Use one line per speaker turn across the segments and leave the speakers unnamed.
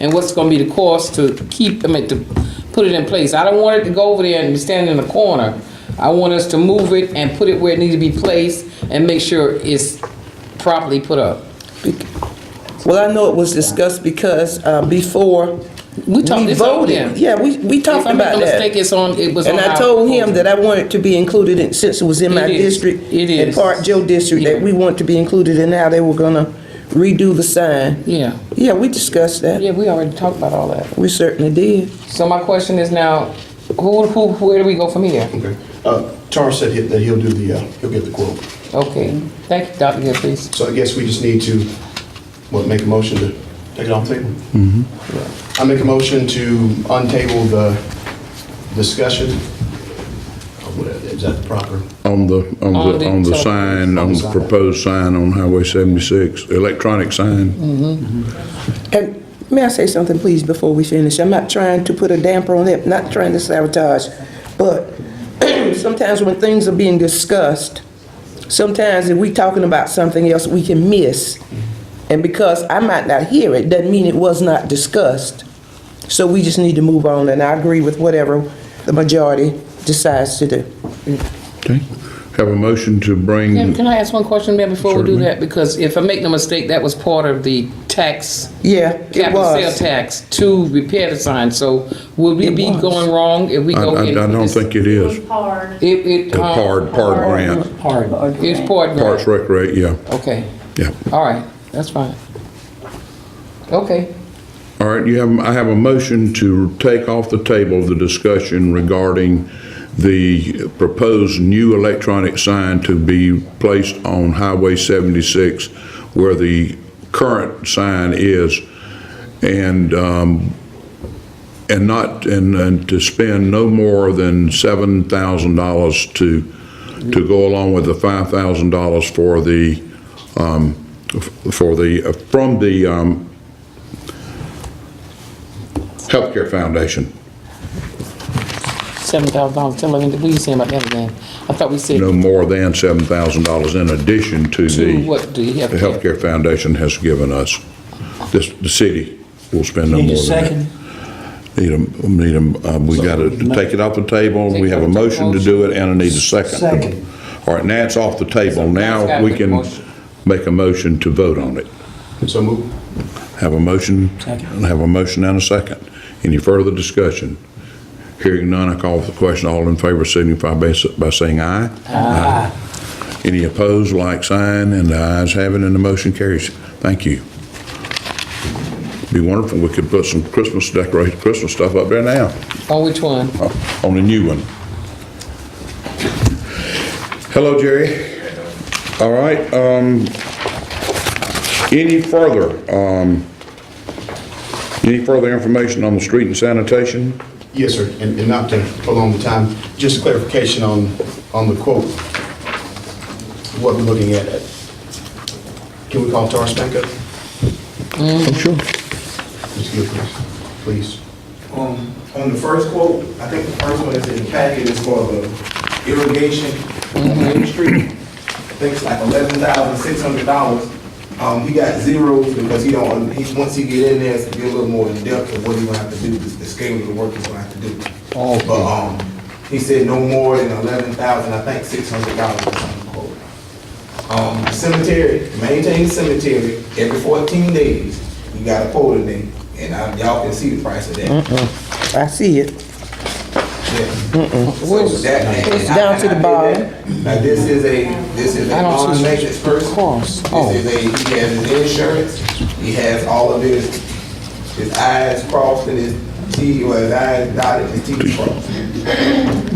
and what's gonna be the cost to keep, I mean, to put it in place. I don't want it to go over there and stand in a corner. I want us to move it and put it where it needs to be placed and make sure it's properly put up.
Well, I know it was discussed because uh, before
We talked
we
this over
voted.
there.
Yeah, we, we
If
talked
I make
about
no mistake,
that.
it's on, it was on
And
our
I told him
proposal.
that I wanted to be included in, since it was in my
It is.
district.
It
And
is.
part Joe district, that
Yeah.
we want to be included in how they were gonna redo the sign.
Yeah,
Yeah, we discussed that.
yeah, we already talked about all that.
We certainly did.
So my question is now, who, who, where do we go from here?
Okay. Uh, Charles said he- that he'll do the, uh, he'll get the quote.
Okay, thank you, Dr. Gilchrist.
So I guess we just need to, what, make a motion to take it off the table? I make a motion to untable the discussion. Oh, what, Is that proper?
On the, on the, on the sign, on the proposed sign on Highway 76, electronic sign.
And may I say something, please, before we finish? I'm not trying to put a damper on it, not trying to sabotage, but sometimes when things are being discussed, sometimes if we talking about something else, we can miss. And because I might not hear it, doesn't mean it was not discussed. So we just need to move on, and I agree with whatever the majority decides to do.
Okay. Have a motion to
Can,
bring,
can I ask one question, Mayor, before we do
Certainly.
that? Because if I make no mistake, that was part of the tax,
Yeah, it
capital sale
was.
tax to repair the sign. So would we
It
be
was.
going wrong if we
I,
go?
I
in
I
for
don't
this?
think it is.
hard.
It, it.
The
um,
PARD, PARD grant,
Pardon, it's part
Parks
grant.
Recreate, yeah,
Okay,
yeah.
all right, that's fine. Okay,
All right, you have, I have a motion to take off the table the discussion regarding the proposed new electronic sign to be placed on Highway 76 where the current sign is, and, um, and not, and, and to spend no more than $7,000 to, to go along with the $5,000 for the, um, f- for the, from the, um, Healthcare Foundation.
seven thousand dollars, tell me, what you saying about that again? I thought we said
No more than $7,000 in addition to
to what
the,
do you have?
the Healthcare Foundation has given us. This, the city will spend no
Need a
more than
second?
that. Need a, need a, um, we got to take it off the table. We have a motion to do it and I need a second.
Second.
All right, now it's off the table.
Now it's
Now
gotta
we
make a
can
motion.
make a motion to vote on it.
So move.
Have a motion?
Second.
Have a motion and a second. Any further discussion? Hearing none, I call for the question. All in favor signify by s- by saying aye. Aye. Any opposed, like sign, and the ayes have it, and the motion carries. Thank you. Be wonderful, we could put some Christmas decoration, Christmas stuff up there now,
On which one?
uh, on the new one. Hello, Jerry. All right, um, any further, um, any further information on the street and sanitation?
Yes, sir, and and not to prolong the time, just clarification on, on the quote. What we're looking at. Can we call Taurus back up?
Sure.
Mr. Gilchrist, please.
Um, on the first quote, I think the first one is in the packet, it's for the irrigation on Main Street. I think it's like eleven thousand six hundred dollars. Um, he got zeros because he don't, he, once he get in there, it's gonna be a little more in depth of what he gonna have to do, the the scale of the work he's gonna have to do.
Okay.
But, um, he said no more than eleven thousand, I think six hundred dollars was on the quote. Um, cemetery, maintain cemetery every fourteen days, you got a quote in there, and I, y'all can see the price of that.
I see it.
Where's-
It's
It's
down to the bottom.
Now, this is a, this is a
I don't see
bond
the
matrix person.
cross. Oh.
This is a, he has his insurance, he has all of his, his I's crossed and his T, or his I's dotted, his T's crossed.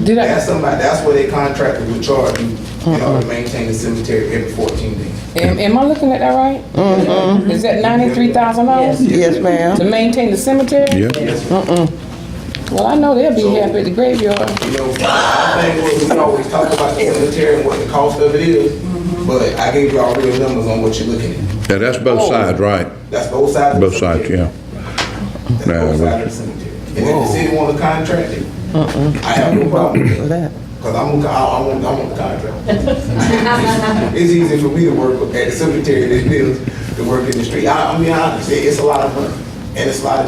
Did I?
That's somebody, that's what they contracted with charge you, in order to maintain the cemetery every fourteen days.
Am, am I looking at that right? Is that ninety-three thousand dollars
Mm-hmm. Yes, ma'am.
to maintain the cemetery?
Yeah.
Well, I know they'll be happy at the graveyard.
You know, I think what we always talk about the cemetery and what the cost of it is, but I gave y'all real numbers on what you're looking at.
Yeah, that's both sides, right?
That's both sides of the
Both sides,
cemetery.
yeah.
That's both sides of the cemetery. And if the city wanna contract it, I have no problem with that,
That.
cause I'm, gonna- I, I want, I want the contract. It's easy for me to work at the cemetery than it is to work in the street. I, I mean, I, it's a lot of money. And it's a lot of